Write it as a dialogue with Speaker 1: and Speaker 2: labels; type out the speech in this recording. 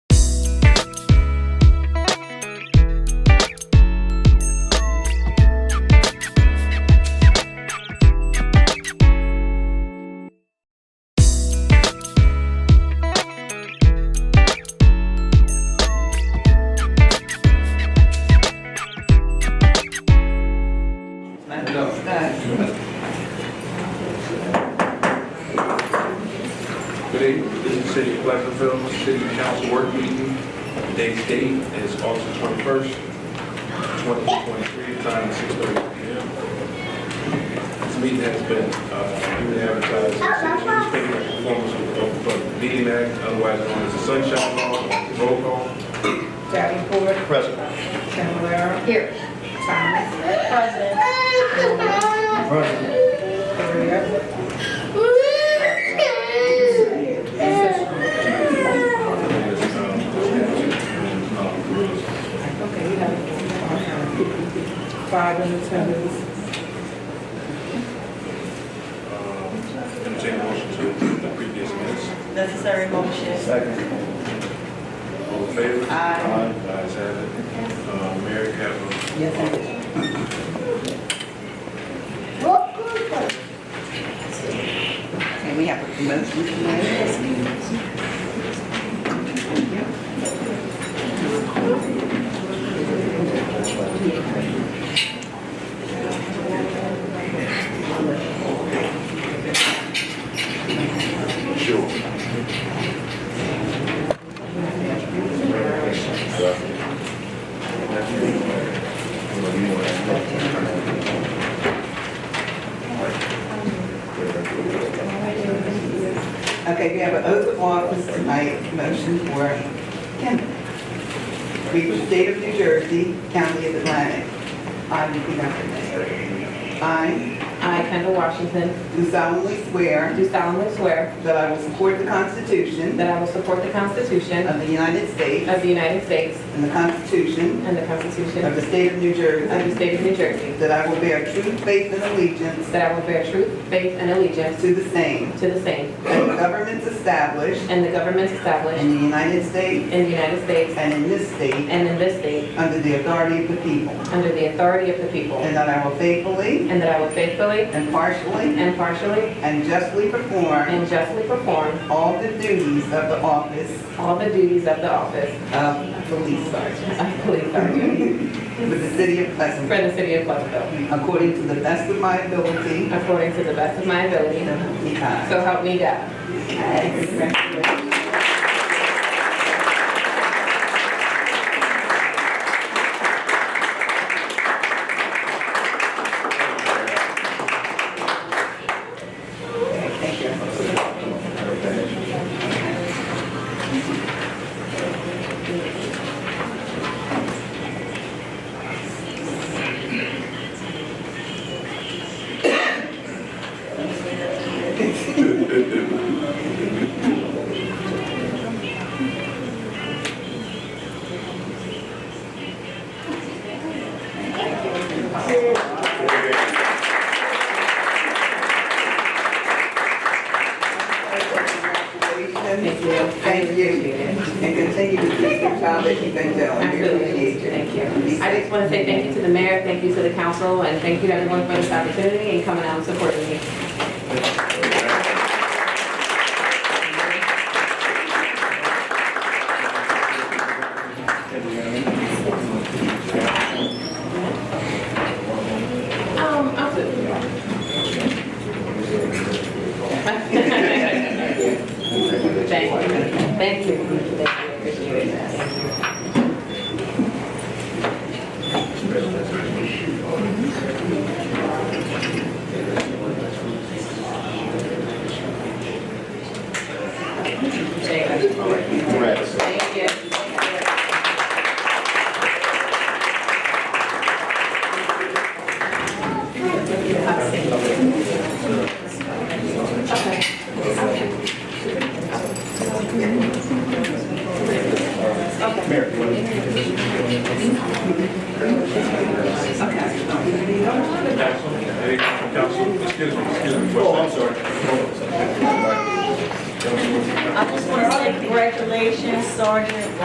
Speaker 1: meeting. Today's date is August twenty-first, twenty twenty-three, time six thirty P M. This meeting has been, uh, duly advertised in the newspaper in conformance with the Open Public Meeting Act, otherwise known as the Sunshine Law. Roll call.
Speaker 2: Davenport.
Speaker 1: Present.
Speaker 2: Cavalera.
Speaker 3: Here.
Speaker 2: Thomas.
Speaker 3: Present.
Speaker 2: Korea.
Speaker 1: uh,
Speaker 2: Okay, you have it. Five in attendance.
Speaker 1: uh, Entertain a motion to approve the previous minutes.
Speaker 4: Necessary motion.
Speaker 5: Second.
Speaker 1: All in favor?
Speaker 4: Aye.
Speaker 1: Ayes have it. Uh, Mayor Campbell.
Speaker 2: Yes, I did. And we have a promotion tonight.
Speaker 1: Sure.
Speaker 2: Okay, we have an oath of office tonight, motion for Kim. People, State of New Jersey, County of Atlantic. I repeat after me. I
Speaker 6: I, Kendall Washington,
Speaker 2: do solemnly swear
Speaker 6: do solemnly swear
Speaker 2: that I will support the Constitution
Speaker 6: that I will support the Constitution
Speaker 2: of the United States
Speaker 6: of the United States
Speaker 2: and the Constitution
Speaker 6: and the Constitution
Speaker 2: of
Speaker 6: of
Speaker 2: the State of New
Speaker 6: the
Speaker 2: Jersey,
Speaker 6: State of New Jersey,
Speaker 2: that I will bear true faith and allegiance
Speaker 6: that I will bear true faith and allegiance
Speaker 2: to the same,
Speaker 6: to the same,
Speaker 2: and the governments established
Speaker 6: and the governments
Speaker 2: in
Speaker 6: established
Speaker 2: the United States
Speaker 6: in the United States
Speaker 2: and in this state,
Speaker 6: and in this state,
Speaker 2: under the authority of the people,
Speaker 6: under the authority of the people,
Speaker 2: and that I will faithfully
Speaker 6: and that I will faithfully,
Speaker 2: impartially,
Speaker 6: impartially,
Speaker 2: and justly perform
Speaker 6: and justly perform
Speaker 2: all the duties of the office
Speaker 6: all the duties of the office
Speaker 2: of police sergeant
Speaker 6: of police sergeant
Speaker 2: for the city of
Speaker 6: for
Speaker 2: Pleasantville,
Speaker 6: the city of Pleasantville,
Speaker 2: according to the best of my ability.
Speaker 6: according to the best of my ability,
Speaker 2: So
Speaker 6: so help me God.
Speaker 2: Thank you.
Speaker 6: Thank
Speaker 2: Congratulations.
Speaker 6: you.
Speaker 2: Thank you. And continue to do the job that you've been doing. We
Speaker 6: Absolutely,
Speaker 2: appreciate you.
Speaker 6: thank you. I just want to say thank you to the mayor, thank you to the council, and thank you to everyone for this opportunity and coming out and supporting me. Um, absolutely. Thank you, thank you, thank you, appreciate it. Thank you. Thank you.
Speaker 1: Hey, Council, excuse me, excuse me. Oh, I'm sorry.
Speaker 4: I just want to say congratulations, Sergeant